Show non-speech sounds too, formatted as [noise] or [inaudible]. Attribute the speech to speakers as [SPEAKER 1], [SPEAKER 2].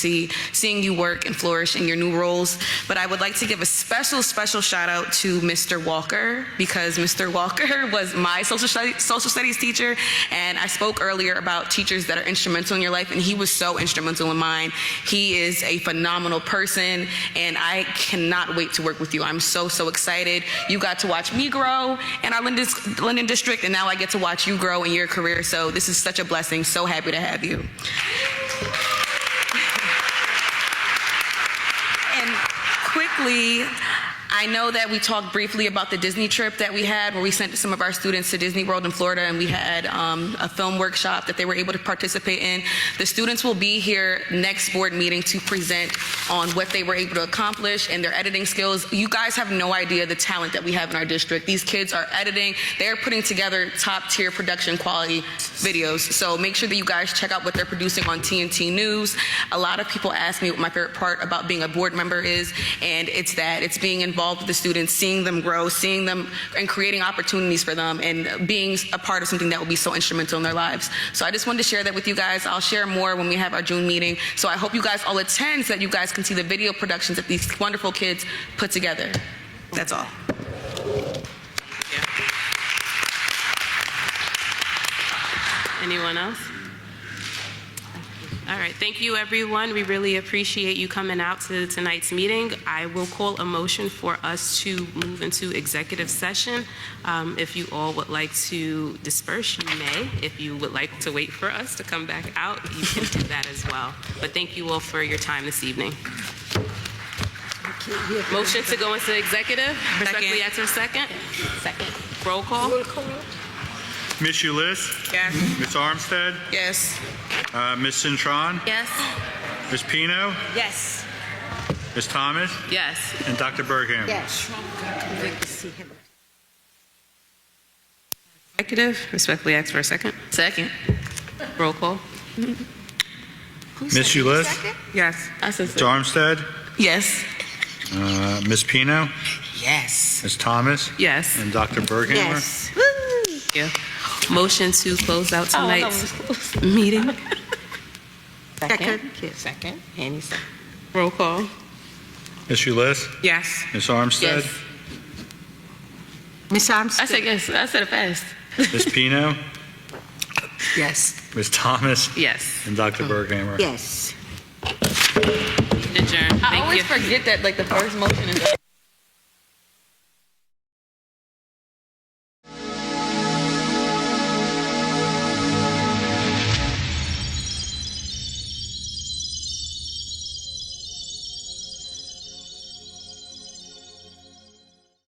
[SPEAKER 1] see seeing you work and flourish in your new roles. But I would like to give a special, special shout out to Mr. Walker because Mr. Walker [laughs] was my social studies, social studies teacher, and I spoke earlier about teachers that are instrumental in your life, and he was so instrumental in mine. He is a phenomenal person, and I cannot wait to work with you. I'm so so excited. You got to watch me grow in our Linden, Linden district, and now I get to watch you grow in your career. So this is such a blessing. So happy to have you. And quickly, I know that we talked briefly about the Disney trip that we had, where we sent some of our students to Disney World in Florida, and we had um, a film workshop that they were able to participate in. The students will be here next board meeting to present on what they were able to accomplish and their editing skills. You guys have no idea the talent that we have in our district. These kids are editing, they're putting together top tier production quality videos. So make sure that you guys check out what they're producing on TNT News. A lot of people ask me what my favorite part about being a board member is, and it's that it's being involved with the students, seeing them grow, seeing them, and creating opportunities for them, and being a part of something that will be so instrumental in their lives. So I just wanted to share that with you guys. I'll share more when we have our June meeting. So I hope you guys all attend so that you guys can see the video productions that these wonderful kids put together. That's all.
[SPEAKER 2] Anyone else? All right, thank you, everyone. We really appreciate you coming out to tonight's meeting. I will call a motion for us to move into executive session. Um, If you all would like to disperse, you may. If you would like to wait for us to come back out, you can do that as well. But thank you all for your time this evening. Motion to go into executive. Respectfully ask for a second. Second. Roll call.
[SPEAKER 3] Miss Ulyss?
[SPEAKER 1] Yes.
[SPEAKER 3] Miss Armstead?
[SPEAKER 1] Yes.
[SPEAKER 3] Uh, Miss Cintron?
[SPEAKER 2] Yes.
[SPEAKER 3] Miss Pino?
[SPEAKER 2] Yes.
[SPEAKER 3] Miss Thomas?
[SPEAKER 2] Yes.
[SPEAKER 3] And Dr. Bergham?
[SPEAKER 2] Executive, respectfully ask for a second.
[SPEAKER 1] Second.
[SPEAKER 2] Roll call.
[SPEAKER 3] Miss Ulyss?
[SPEAKER 2] Yes. I said
[SPEAKER 3] Miss Armstead?
[SPEAKER 1] Yes.
[SPEAKER 3] Uh, Miss Pino?
[SPEAKER 4] Yes.
[SPEAKER 3] Miss Thomas?
[SPEAKER 2] yes.
[SPEAKER 3] And Dr. Bergham?
[SPEAKER 2] Thank you. Motion to close out tonight's meeting.
[SPEAKER 4] Second. Second. Any second.
[SPEAKER 2] Roll call.
[SPEAKER 3] Miss Ulyss?
[SPEAKER 2] Yes.
[SPEAKER 3] Miss Armstead?
[SPEAKER 2] Yes.
[SPEAKER 4] Miss Armstrong?
[SPEAKER 2] I said yes. I said it fast.
[SPEAKER 3] Miss Pino?
[SPEAKER 4] Yes.
[SPEAKER 3] Miss Thomas?
[SPEAKER 2] Yes.
[SPEAKER 3] And Dr. Bergham?
[SPEAKER 4] Yes.
[SPEAKER 2] Adjourn. Thank you.
[SPEAKER 1] forget that like the first motion is.